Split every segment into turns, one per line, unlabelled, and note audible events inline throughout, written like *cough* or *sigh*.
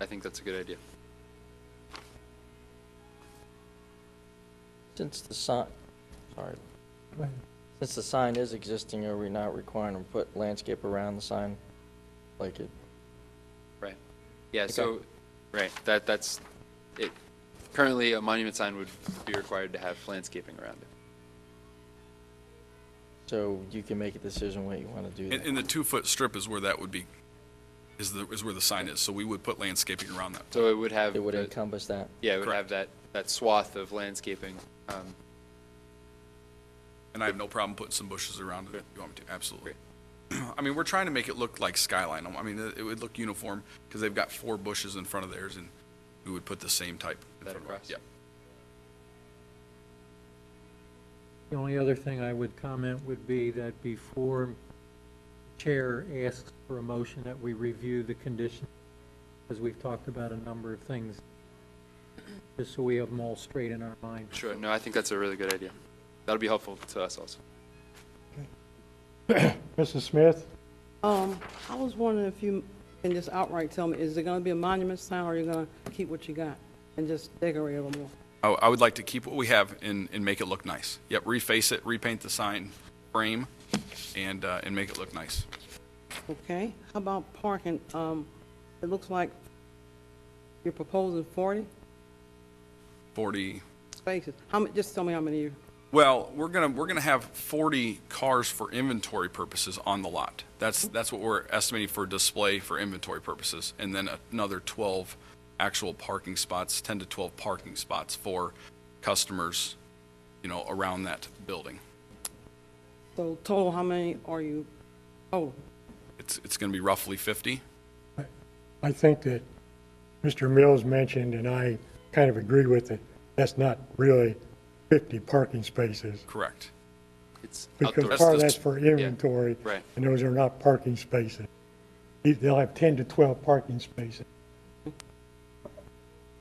I think that's a good idea.
Since the sign, sorry, since the sign is existing, are we not requiring them to put landscape around the sign? Like it,
Right. Yeah, so, right, that, that's, it, currently, a monument sign would be required to have landscaping around it.
so you can make a decision what you want to do.
And,
there.
and the two-foot strip is where that would be, is the, is where the sign is, so we would put landscaping around that.
So it would have,
It would
the-
encompass that.
yeah, it would have
Correct.
that, that swath of landscaping. Um,
And I have no problem putting some bushes around it if you want me to, absolutely. *clears throat* I mean, we're trying to make it look like skyline, I mean, it it would look uniform, because they've got four bushes in front of theirs, and we would put the same type. in
That
front of ours.
across?
Yeah.
The only other thing I would comment would be that before Chair asks for a motion, that we review the condition, as we've talked about a number of things, just so we have them all straight in our mind.
Sure, no, I think that's a really good idea. That'll be helpful to us also.
Mrs. Smith?
Um, I was wondering if you can just outright tell me, is it gonna be a monument sign, or are you gonna keep what you got and just decorate a little more?
I, I would like to keep what we have and, and make it look nice. Yep, reface it, repaint the sign frame, and, uh, and make it look nice.
Okay, how about parking? Um, it looks like you're proposing forty
Forty,
spaces. How many, just tell me how many you,
Well, we're gonna, we're gonna have 40 cars for inventory purposes on the lot. That's, that's what we're estimating for display for inventory purposes. And then another 12 actual parking spots, 10 to 12 parking spots for customers, you know, around that building.
so total, how many are you, total?
It's, it's gonna be roughly 50.
I think that Mr. Mills mentioned, and I kind of agree with it, that's not really 50 parking spaces.
Correct.
It's outdoor.
Because
That's
part of
the-
that's for inventory.
right.
And those are not parking spaces. They'll have 10 to 12 parking spaces.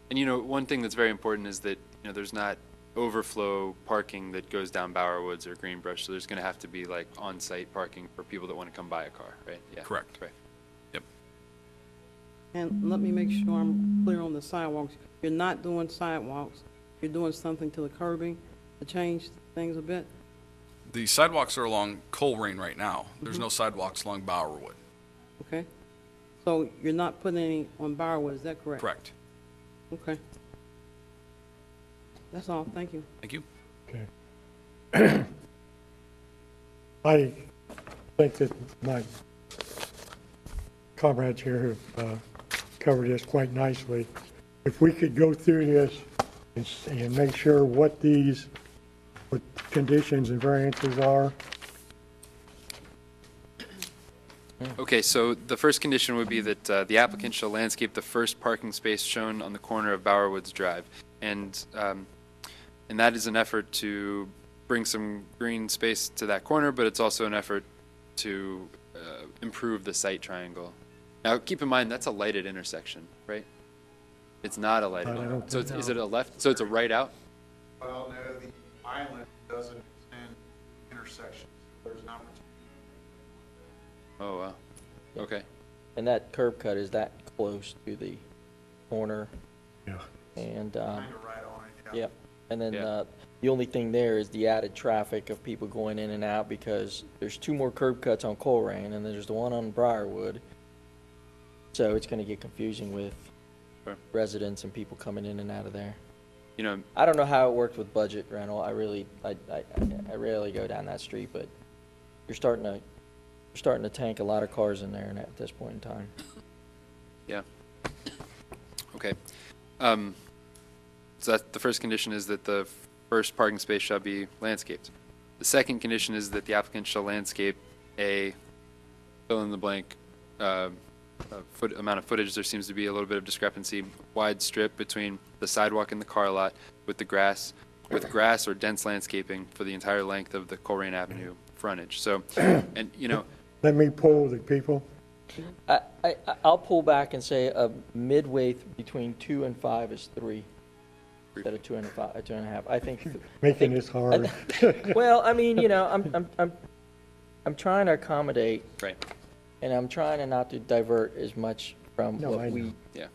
And you know, one thing that's very important is that, you know, there's not overflow parking that goes down Bower Woods or Greenbrush, so there's gonna have to be like on-site parking for people that wanna come buy a car, right? Yeah.
Correct.
Right.
Yep.
And let me make sure I'm clear on the sidewalks. You're not doing sidewalks, you're doing something to the curbing to change things a bit?
The sidewalks are along Colerain right now. There's no sidewalks along Bowerwood.
Okay. So you're not putting any on Briarwood, is that correct?
Correct.
Okay. That's all, thank you.
Thank you.
Okay. *clears throat* I think that my comrades here have uh, covered this quite nicely. If we could go through this and s- and make sure what these, what conditions and variances are,
Okay, so the first condition would be that uh, the applicant shall landscape the first parking space shown on the corner of Bower Woods Drive. And, um, and that is an effort to bring some green space to that corner, but it's also an effort to uh, improve the site triangle. Now, keep in mind, that's a lighted intersection, right? It's not a lighted
I don't
one. So it's- is it a left, so it's a right out?
Well, no, the island doesn't extend intersections. There's an opportunity.
Oh, wow. Okay.
And that curb cut, is that close to the corner?
Yeah.
And, um,
Kind of right on it, yeah.
yep. And then,
Yeah.
uh, the only thing there is the added traffic of people going in and out because there's two more curb cuts on Colerain and then there's the one on Briarwood. So it's gonna get confusing with
Sure.
residents and people coming in and out of there.
You know,
I don't know how it worked with budget rental. I really, I, I, I rarely go down that street, but you're starting to, you're starting to tank a lot of cars in there and at this point in time.
Yeah. Okay. Um, so that, the first condition is that the first parking space shall be landscaped. The second condition is that the applicant shall landscape a fill in the blank, uh, uh, foot, amount of footage. There seems to be a little bit of discrepancy, wide strip between the sidewalk and the car lot with the grass, with grass or dense landscaping for the entire length of the Colerain Avenue frontage. So, and, you know,
let me poll the people.
I, I, I'll pull back and say, uh, midway th- between two and five is three. Instead of two and a fi- uh, two and a half. I think,
Making this hard.
*laughs* well, I mean, you know, I'm, I'm, I'm, I'm trying to accommodate
right,
and I'm trying to not to divert as much from
*laughs* No, I
what we
know.
yeah.